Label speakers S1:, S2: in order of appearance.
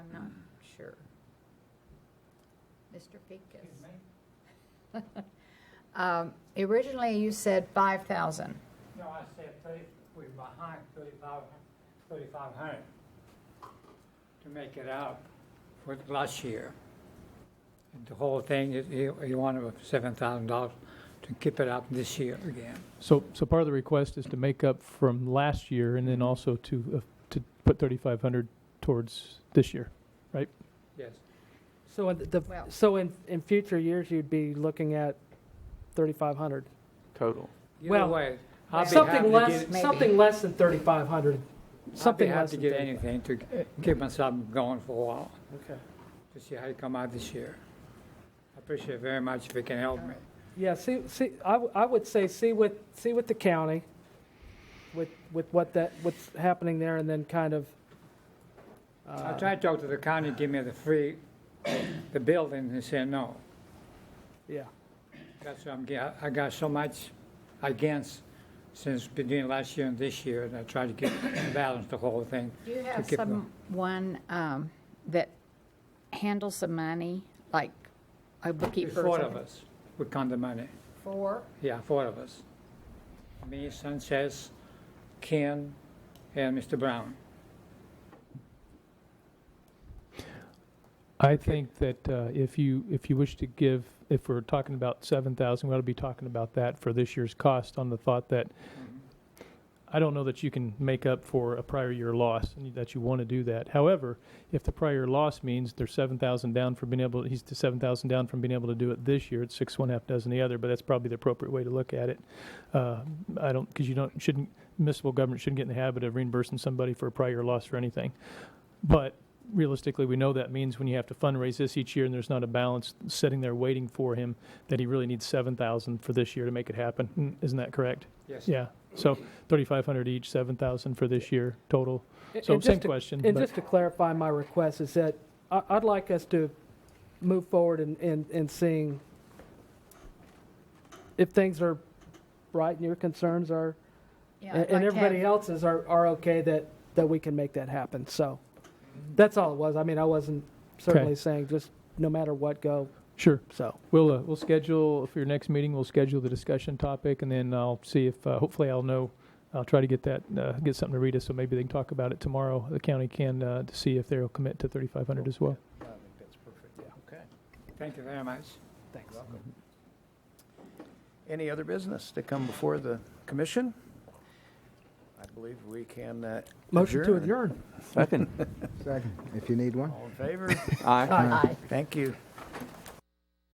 S1: Sure. Mr.
S2: Excuse
S1: Pincus.
S2: me?
S1: Um, Originally, you said 5,000.
S2: No, I said thirty, we're behind thirty-five, thirty-five hundred to make it up for last year. And The whole thing, is you, you want seven thousand dollars to keep it up this year again.
S3: So, so part of the request is to make up from last year and then also to, uh, to put thirty-five hundred towards this year.
S2: Yes.
S4: So in the,
S1: Well-
S4: so in, in future years, you'd be looking at 3,500?
S5: total.
S2: Either
S4: Well,
S2: way, I'd be happy to
S4: Something less,
S2: get,
S1: maybe.
S4: something less than 3,500.
S2: I'd be
S4: Something
S2: happy
S4: less
S2: to
S4: than
S2: get
S4: 35.
S2: anything to keep myself going for a while,
S4: Okay.
S2: to see how you come out this year. I appreciate very much if you can help me.
S4: Yeah, see, see, I, w- I would say, see what, see what the county, with, with what that, what's happening there, and then kind of.
S2: I
S4: uh,
S2: tried to talk to the county, give me the free, the building, they said no.
S4: Yeah,
S2: That's what I'm, get- I got so much against since between last year and this year, and I tried to get balance the whole thing.
S1: Do you have
S2: keep them.
S1: someone um, that handles the money, like a bookkeeper? or
S2: Four of
S1: something?
S2: us, we count the money,
S1: Four?
S2: yeah, four of us. Me, Sanchez, Ken, and Mr. Brown.
S3: I think that uh, if you, if you wish to give, if we're talking about seven thousand, we ought to be talking about that for this year's cost on the thought that I don't know that you can make up for a prior year loss and that you want to do that. However, if the prior loss means they're seven thousand down from being able, he's seven thousand down from being able to do it this year. It's six one half dozen the other, but that's probably the appropriate way to look at it. Uh, I don't because you don't shouldn't municipal government shouldn't get in the habit of reimbursing somebody for a prior loss for anything. But realistically, we know that means when you have to fundraise this each year and there's not a balance sitting there waiting for him that he really needs seven thousand for this year to make it happen. Mm, Isn't that correct?
S2: Yes.
S3: Yeah, so thirty-five hundred each, seven thousand for this year total.
S4: And-
S3: So
S4: and
S3: same
S4: just to-
S3: question,
S4: And
S3: but-
S4: just to clarify, my request is that I, I'd like us to move forward and, and, and seeing if things are right and your concerns are,
S1: Yeah,
S4: and
S1: I'd like
S4: and
S1: to have-
S4: everybody else's are, are okay, that, that we can make that happen. So that's all it was. I mean, I wasn't certainly saying just no matter what, go,
S3: Sure,
S4: so.
S3: we'll, uh, we'll schedule, for your next meeting, we'll schedule the discussion topic, and then I'll see if, uh, hopefully I'll know, I'll try to get that, uh, get something to read us, so maybe they can talk about it tomorrow, the county can, uh, to see if they'll commit to thirty-five hundred as well.
S5: I think that's perfect, yeah. Okay,
S2: Thank you very much.
S4: Thanks.
S5: welcome. Mm-hmm. Any other business to come before the commission? I believe we can uh,
S4: Motion to adjourn.
S5: Second.
S6: Second, if you need one.
S5: All in favor?
S1: Aye.
S5: Thank you.